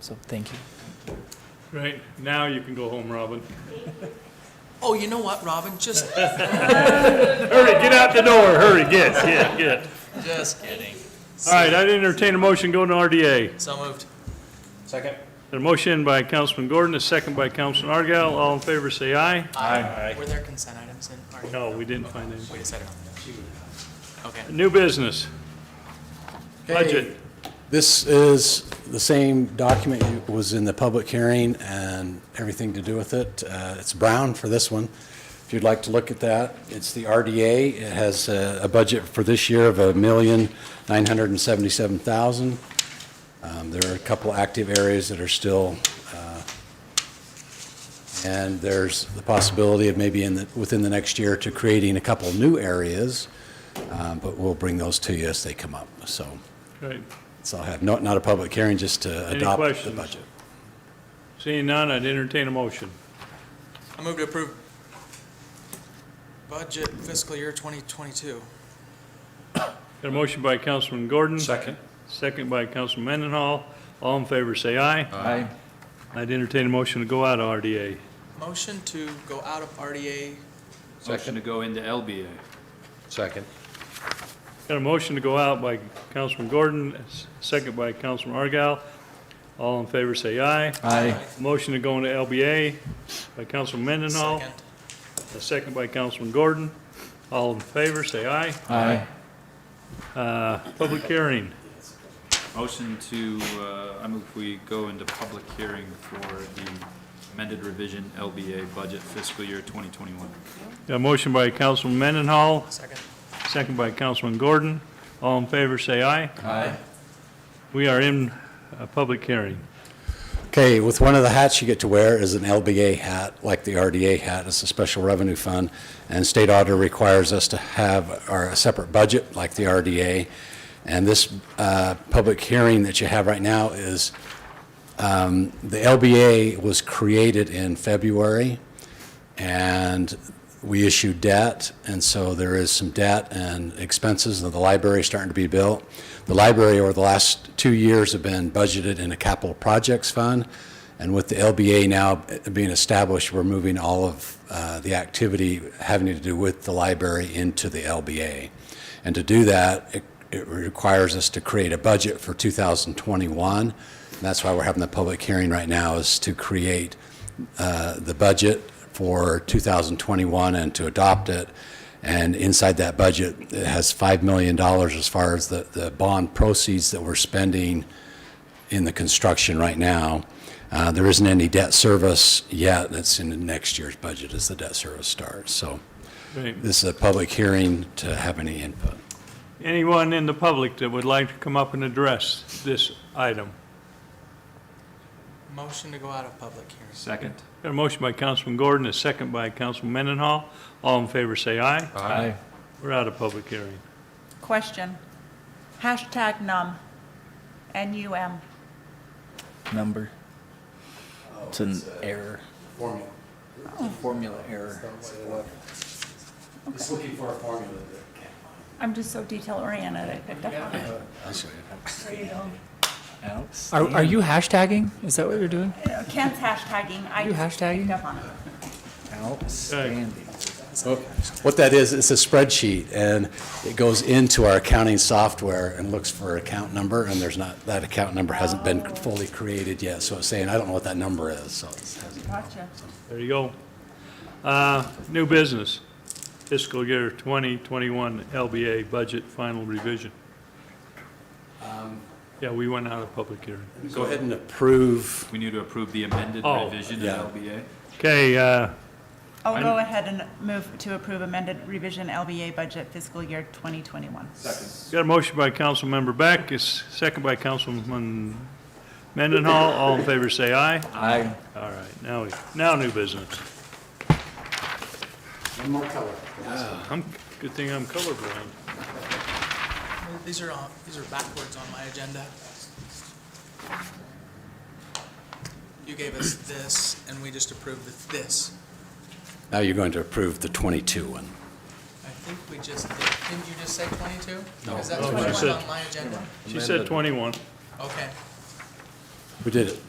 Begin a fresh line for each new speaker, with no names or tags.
So thank you.
Right, now you can go home, Robin.
Oh, you know what, Robin? Just,
Hurry, get out the door, hurry, get, get, get.
just kidding.
All right, I'd entertain a motion going to RDA.
So moved.
Second?
A motion by Councilman Gordon, a second by Councilman Argal. All in favor, say aye.
Aye.
Were there consent items in? our-
No, we didn't find any.
Wait a second. Okay.
New business, budget.
This is the same document that was in the public hearing and everything to do with it. Uh, It's brown for this one, if you'd like to look at that. It's the RDA. It has a a budget for this year of a million nine hundred and seventy-seven thousand. Um, There are a couple active areas that are still, uh, and there's the possibility of maybe in, the- within the next year to creating a couple new areas, uh, but we'll bring those to you as they come up, so.
Right,
So I have not, not a public hearing, just to
Any
adopt the
questions?
budget.
seeing none, I'd entertain a motion.
I move to approve budget fiscal year 2022.
Got a motion by Councilman Gordon.
Second.
Second by Councilman Mendenhall. All in favor, say aye.
Aye.
I'd entertain a motion to go out of RDA.
Motion to go out of RDA.
Motion to go into LBA.
Second.
Got a motion to go out by Councilman Gordon, s- second by Councilman Argal. All in favor, say aye.
Aye.
Motion to go into LBA by Councilman Mendenhall,
Second.
a second by Councilman Gordon. All in favor, say aye.
Aye.
Uh, Public hearing,
Motion to, uh, I move we go into public hearing for the amended revision LBA budget fiscal year 2021.
Got a motion by Councilman Mendenhall,
Second.
second by Councilman Gordon. All in favor, say aye.
Aye.
We are in a public hearing.
Okay, with one of the hats you get to wear is an LBA hat, like the RDA hat. It's a special revenue fund, and state auditor requires us to have our a separate budget, like the RDA. And this uh, public hearing that you have right now is, um, the LBA was created in February, and we issued debt, and so there is some debt and expenses of the library starting to be built. The library over the last two years have been budgeted in a capital projects fund, and with the LBA now being established, we're moving all of uh, the activity having to do with the library into the LBA. And to do that, it- it requires us to create a budget for 2021. And That's why we're having the public hearing right now, is to create uh, the budget for 2021 and to adopt it. And inside that budget, it has $5 million as far as the, the bond proceeds that we're spending in the construction right now. Uh, There isn't any debt service yet. That's in the next year's budget as the debt service starts. So
Right.
this is a public hearing to have any input.
Anyone in the public that would like to come up and address this item?
Motion to go out of public hearing.
Second.
Got a motion by Councilman Gordon, a second by Councilman Mendenhall. All in favor, say aye.
Aye.
We're out of public hearing.
Question. Hashtag num. N-U-M.
Number. It's an error. Formula. Formula error.
Just looking for a formula
I'm just so detail oriented, I picked up on it.
Alex.
Are, are you hashtagging? Is that what you're doing?
Ken's hashtagging, I
You
just
hashtagging?
picked up on it.
Outstanding.
What that is, it's a spreadsheet, and it goes into our accounting software and looks for account number, and there's not, that account number hasn't been fully created yet, so it's saying, I don't know what that number is, so it's-
Gotcha.
There you go. Uh, New business, fiscal year 2021 LBA budget final revision. Yeah, we went out of public hearing.
Go ahead and approve.
We need to approve the amended
Oh,
revision in
yeah.
LBA.
Okay, uh,
I'll go ahead and move to approve amended revision LBA budget fiscal year 2021.
got a motion by Councilmember Beck, a s- second by Councilman Mendenhall. All in favor, say aye.
Aye.
All right, now, we now new business.
One more color.
I'm, good thing I'm colorblind.
These are, on- these are backwards on my agenda. You gave us this, and we just approved of this.
Now you're going to approve the 22 one.
I think we just, did- didn't you just say 22? No. Is that
No,
what
she
went
said-
on my agenda?
She said 21.
Okay.
We did it.